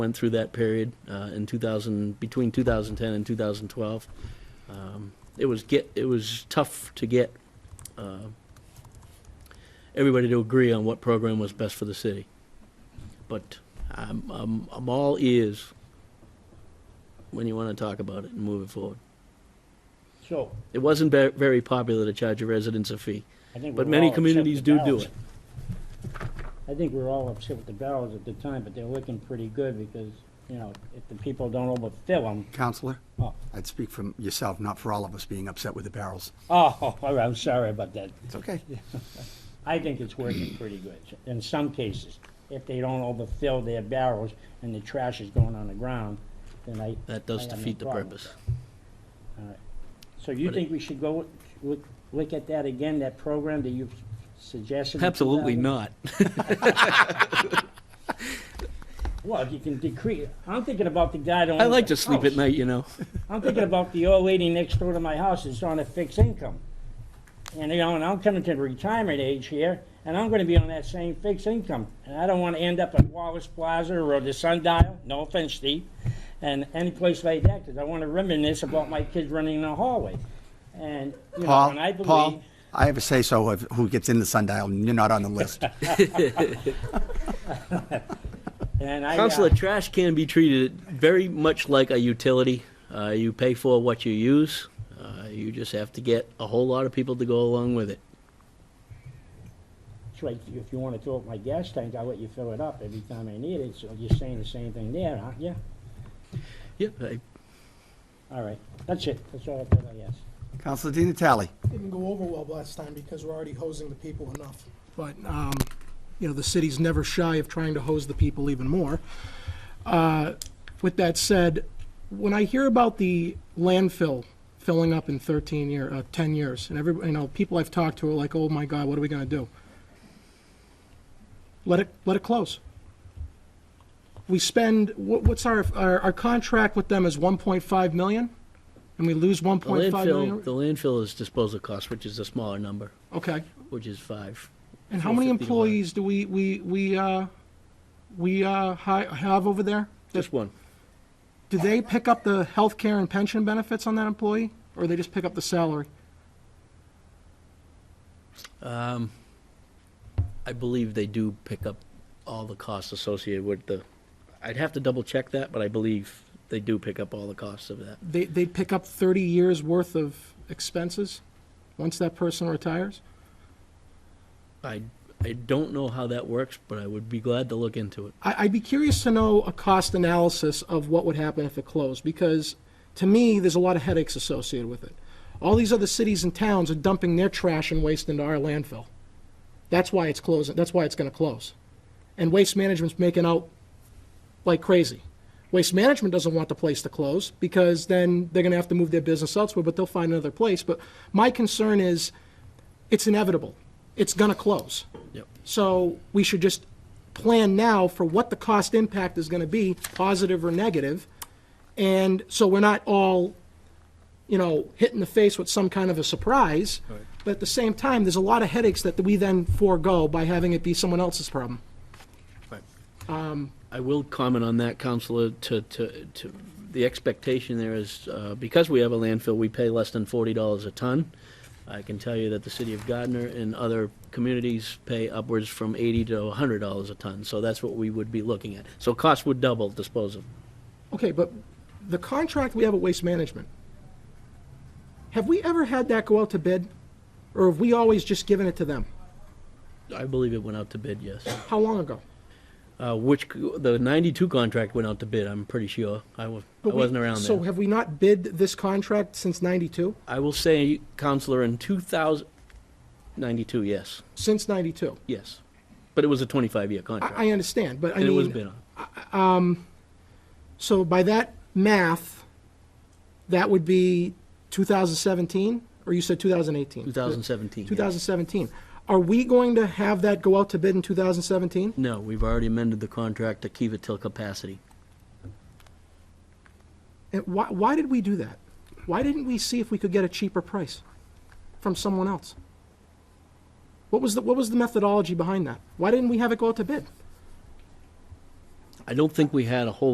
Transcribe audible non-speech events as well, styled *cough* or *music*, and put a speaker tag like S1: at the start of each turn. S1: went through that period uh, in 2000, between 2010 and 2012. Um, It was get, it was tough to get uh, everybody to agree on what program was best for the city. But I'm, I'm, I'm all ears when you want to talk about it and move it forward.
S2: So,
S1: It wasn't ve- very popular to charge your residents a fee,
S2: I think
S1: but
S2: we're
S1: many
S2: all upset
S1: communities
S2: with
S1: do do
S2: the barrels.
S1: it.
S2: I think we're all upset with the barrels at the time, but they're looking pretty good because, you know, if the people don't overfill them,
S3: Counselor,
S2: oh,
S3: I'd speak from yourself, not for all of us being upset with the barrels.
S2: oh, all right, I'm sorry about that.
S3: It's
S2: *laughs*
S3: okay.
S2: I think it's working pretty good in some cases. If they don't overfill their barrels and the trash is going on the ground, then I.
S1: That does
S2: I have no
S1: defeat the
S2: problem with
S1: purpose.
S2: that. All right. So you
S1: But it-
S2: think we should go look, look at that again, that program that you've suggested? in
S1: Absolutely
S2: 2000?
S1: not.
S2: Well, if you can decrease, I'm thinking about the guy that.
S1: I
S2: owns
S1: like
S2: the
S1: to sleep
S2: house.
S1: at night, you know.
S2: I'm thinking about the old lady next door to my house that's on a fixed income. And, you know, and I'm coming to retirement age here, and I'm gonna be on that same fixed income. And I don't wanna end up at Wallace Plaza or the Sundial, no offense, Steve, and any place like that, 'cause I wanna reminisce about my kids running in the hallway. And, you know,
S3: Paul,
S2: and I
S3: Paul,
S2: believe,
S3: I have a say-so of who gets in the sundial, and you're not on the
S2: *laughs*
S3: list.
S2: and I. uh,
S1: Council of trash can be treated very much like a utility. Uh, you pay for what you use. Uh, you just have to get a whole lot of people to go along with it.
S2: It's like, if you wanna fill up my gas tank, I'll let you fill it up every time I need it, so you're saying the same thing there, aren't you?
S1: Yeah, I,
S2: All right, that's it, that's all I got, yes.
S3: Counselor Di Natale,
S4: didn't go over well last time because we're already hosing the people enough. But, um, you know, the city's never shy of trying to hose the people even more. Uh, With that said, when I hear about the landfill filling up in 13 year, uh, 10 years, and every, you know, people I've talked to are like, oh my God, what are we gonna do? Let it, let it close. We spend, what, what's our, our, our contract with them is 1.5 million? And we lose
S1: the
S4: 1.5 million?
S1: landfill, the landfill is disposal cost, which is a smaller number,
S4: Okay.
S1: which is five.
S4: And how many
S1: 450 to one.
S4: employees do we, we, we, uh, we, uh, hi- have over there?
S1: Just one.
S4: Do they pick up the health care and pension benefits on that employee, or they just pick up the salary?
S1: I believe they do pick up all the costs associated with the, I'd have to double check that, but I believe they do pick up all the costs of that.
S4: They, they pick up thirty years' worth of expenses once that person retires?
S1: I, I don't know how that works, but I would be glad to look into it.
S4: I, I'd be curious to know a cost analysis of what would happen if it closed, because to me, there's a lot of headaches associated with it. All these other cities and towns are dumping their trash and waste into our landfill. That's why it's closing, that's why it's gonna close. And Waste Management's making out like crazy. Waste Management doesn't want the place to close, because then they're gonna have to move their business elsewhere, but they'll find another place. But my concern is, it's inevitable. It's gonna close.
S1: Yep.
S4: So we should just plan now for what the cost impact is going to be, positive or negative, And so we're not all, you know, hit in the face with some kind of a surprise. But at the same time, there's a lot of headaches that we then forego by having it be someone else's problem.
S1: I will comment on that, Counselor, to, to, to, the expectation there is, uh, because we have a landfill, we pay less than forty dollars a ton. I can tell you that the city of Gardner and other communities pay upwards from eighty to hundred dollars a ton, so that's what we would be looking at. So costs would double disposal.
S4: Okay, but the contract we have at Waste Management, have we ever had that go out to bid? Or have we always just given it to them?
S1: I believe it went out to bid, yes.
S4: How long ago?
S1: Uh, which, c- the ninety-two contract went out to bid, I'm pretty sure. I was, I
S4: But we-
S1: wasn't around
S4: So
S1: then.
S4: have we not bid this contract since 92?
S1: I will say, Counselor, in two thousand, ninety-two, yes,
S4: Since 92?
S1: yes. But it was a twenty-five year contract.
S4: I, I understand, but I
S1: And
S4: mean,
S1: it was bid on.
S4: so by that math, that would be 2017, or you said 2018?
S1: 2017. yeah.
S4: 2017. Are we going to have that go out to bid in 2017?
S1: No, we've already amended the contract to keep it till capacity.
S4: And why, why did we do that? Why didn't we see if we could get a cheaper price from someone else? What was the, what was the methodology behind that? Why didn't we have it go out to bid?
S1: I don't think we had a whole